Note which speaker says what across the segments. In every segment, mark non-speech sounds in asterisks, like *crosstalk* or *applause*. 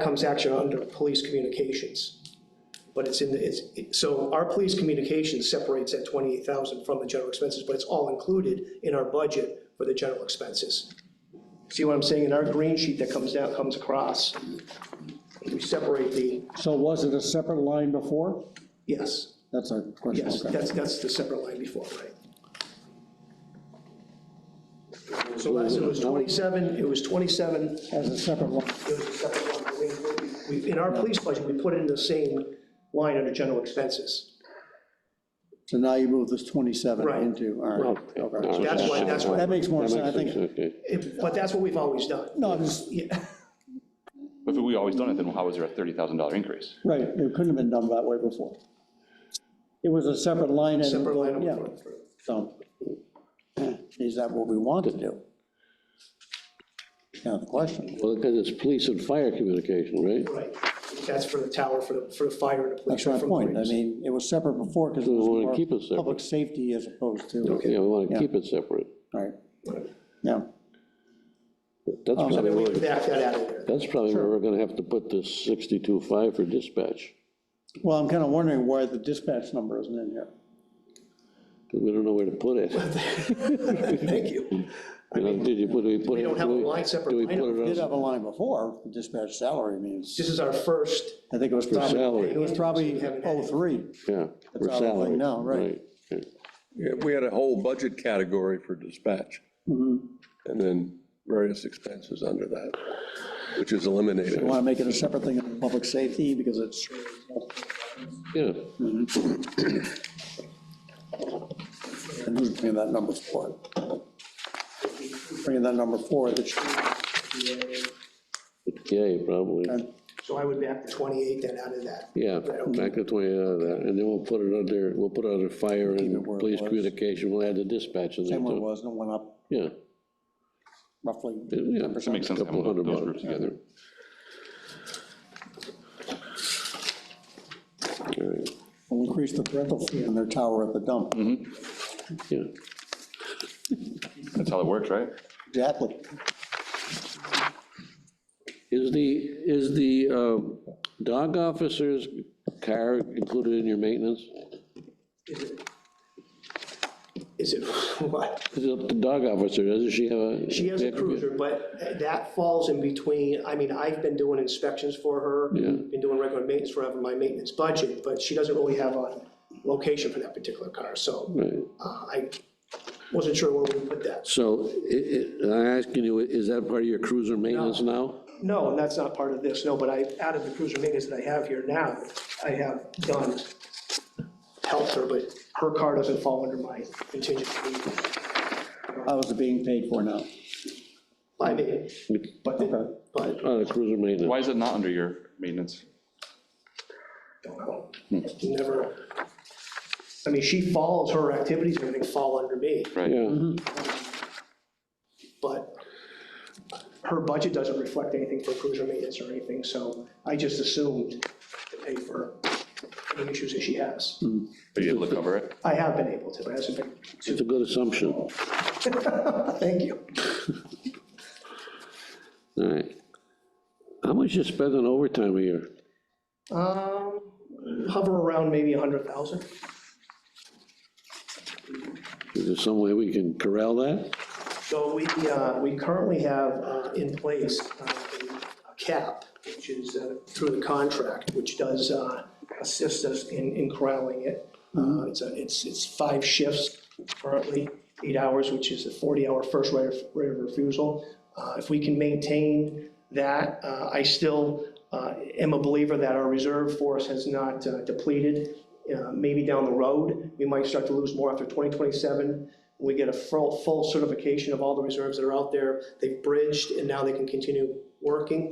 Speaker 1: comes actually under police communications. But it's in the, it's, it- so our police communications separates that twenty-eight thousand from the general expenses, but it's all included in our budget for the general expenses. See what I'm saying? In our green sheet that comes down, comes across, we separate the,
Speaker 2: So was it a separate line before?
Speaker 1: yes,
Speaker 2: That's a question.
Speaker 1: yes,
Speaker 2: okay.
Speaker 1: that's, that's the separate line before, right? So last, it was twenty-seven, it was twenty-seven,
Speaker 2: As a separate line.
Speaker 1: It was a separate line. We- we- In our police budget, we put it in the same line under general expenses.
Speaker 2: So now you move this 27
Speaker 1: Right.
Speaker 2: into, all right, okay.
Speaker 1: That's why- that's why-
Speaker 2: That makes more sense, I think.
Speaker 3: Okay.
Speaker 1: It- But that's what we've always done.
Speaker 2: No, I'm just,
Speaker 1: Yeah, *laughs*
Speaker 4: If we always done it, then how was there a $30,000 increase?
Speaker 2: right, it couldn't have been done that way before. It was a separate line. and-
Speaker 1: Separate line
Speaker 2: Yeah,
Speaker 1: item.
Speaker 2: so, eh, is that what we want to do? Now, the question,
Speaker 3: Well, because it's police and fire communication, right?
Speaker 1: Right. That's for the tower, for the, for the fire and the police.
Speaker 2: that's my
Speaker 1: from
Speaker 2: point, I
Speaker 1: police.
Speaker 2: mean, it was separate before because it
Speaker 3: We
Speaker 2: was
Speaker 3: wanna keep
Speaker 2: more
Speaker 3: it separate.
Speaker 2: public safety as opposed to,
Speaker 3: Yeah, we want to
Speaker 2: Yeah.
Speaker 3: keep it separate.
Speaker 2: right, yeah. Oh.
Speaker 3: That's probably,
Speaker 1: Then we
Speaker 3: where-
Speaker 1: back that out of
Speaker 2: *laughs*
Speaker 1: there.
Speaker 3: that's probably where we're going to have to put this 62.5 for dispatch,
Speaker 2: Well, I'm kind of wondering why the dispatch number isn't in here.
Speaker 3: because we don't know where to
Speaker 2: *laughs*
Speaker 3: put it.
Speaker 1: Thank you.
Speaker 3: You know, Did you put, do we put?
Speaker 1: We don't have a
Speaker 3: do we-
Speaker 1: line separate
Speaker 3: do we
Speaker 1: line
Speaker 3: put it
Speaker 2: Did
Speaker 3: on
Speaker 2: have a line before, the dispatch salary, I mean, it's-
Speaker 1: This is our first,
Speaker 2: I think it was,
Speaker 3: For
Speaker 2: probably- it
Speaker 3: salary,
Speaker 2: was probably 03.
Speaker 3: yeah, for
Speaker 2: all I
Speaker 3: salary.
Speaker 2: know, right.
Speaker 3: okay.
Speaker 5: Yeah, we had a whole budget category for dispatch. And then various expenses under that, which is eliminated.
Speaker 2: You want to make it a separate thing on public safety because it's,
Speaker 3: Yeah,
Speaker 2: and who's bringing that number forward? Bringing that number forward, that should-
Speaker 3: yeah, probably,
Speaker 2: Uh,
Speaker 1: so I would back the 28 then out of that.
Speaker 3: yeah, back the 20 out of that, and then we'll put it under, we'll put it under fire
Speaker 2: Keep it
Speaker 3: and
Speaker 2: where it
Speaker 3: police
Speaker 2: was.
Speaker 3: communication, we'll add the dispatch in there
Speaker 2: same one it
Speaker 3: too.
Speaker 2: was, and it went up
Speaker 3: Yeah,
Speaker 2: roughly
Speaker 3: yeah.
Speaker 2: 10%.
Speaker 4: Makes sense to have
Speaker 3: Couple hundred
Speaker 4: those
Speaker 3: bucks.
Speaker 4: groups together.
Speaker 3: all right,
Speaker 2: We'll increase the rental fee on their tower at the dump.
Speaker 3: Mm-hmm. yeah.
Speaker 4: That's how it works, right?
Speaker 2: Exactly.
Speaker 3: Is the, is the um, dog officer's car included in your maintenance?
Speaker 1: Is it? Is it *laughs* what?
Speaker 3: 'Cause it's up to The dog officer, doesn't she have a?
Speaker 1: She has a cruiser, but that falls in between, I mean, I've been doing inspections for her, been doing regular maintenance forever, my maintenance budget, but she doesn't really have a location for that particular car, so
Speaker 3: Right.
Speaker 1: uh, I wasn't sure where we put that.
Speaker 3: So i- i- I'm asking you, is that part of your cruiser maintenance now?
Speaker 1: No, and that's not part of this, no, but I, out of the cruiser maintenance that I have here now, I have done, helped her, but her car doesn't fall under my contingency.
Speaker 2: How is it being paid for now?
Speaker 1: I mean, but,
Speaker 2: Okay.
Speaker 1: but,
Speaker 3: On Oh, the cruiser
Speaker 4: Why
Speaker 3: maintenance?
Speaker 4: is it not under your maintenance?
Speaker 1: don't know. never, I mean, she follows her activities, everything fall under me,
Speaker 4: Right,
Speaker 1: Mm-hmm.
Speaker 3: Yeah,
Speaker 1: but her budget doesn't reflect anything for cruiser maintenance or anything, so I just assumed to pay for any issues that she has.
Speaker 4: but you able to cover it?
Speaker 1: I have been able to, but it hasn't been,
Speaker 3: it's a good assumption. All
Speaker 1: thank you.
Speaker 3: right. How much you spend on overtime a year?
Speaker 1: Um, hover around maybe a hundred thousand.
Speaker 3: Is there some way we can corral that?
Speaker 1: So we, uh, we currently have uh, in place uh, a cap, which is uh, through the contract, which does uh, assist us in, in corralling it. Uh, It's, a- it's, it's five shifts currently, eight hours, which is a 40-hour first right of right of refusal. Uh, If we can maintain that, uh, I still uh, am a believer that our reserve force has not uh, depleted. Uh, Maybe down the road, we might start to lose more after 2027. We get a full, full certification of all the reserves that are out there. They've bridged and now they can continue working.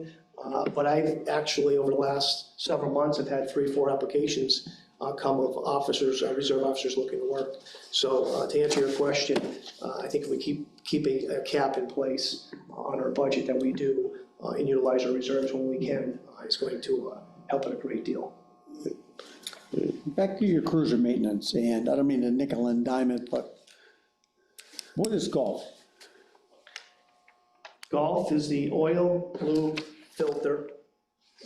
Speaker 1: Uh, But I've actually, over the last several months, have had three, four applications uh, come of officers, uh, reserve officers looking to work. So uh, to answer your question, uh, I think if we keep, keep a a cap in place on our budget that we do uh, and utilize our reserves when we can, uh, it's going to uh, help it a great deal.
Speaker 2: Back to your cruiser maintenance, and I don't mean to nickel and dime it, but what is golf?
Speaker 1: Golf is the oil, lube, filter,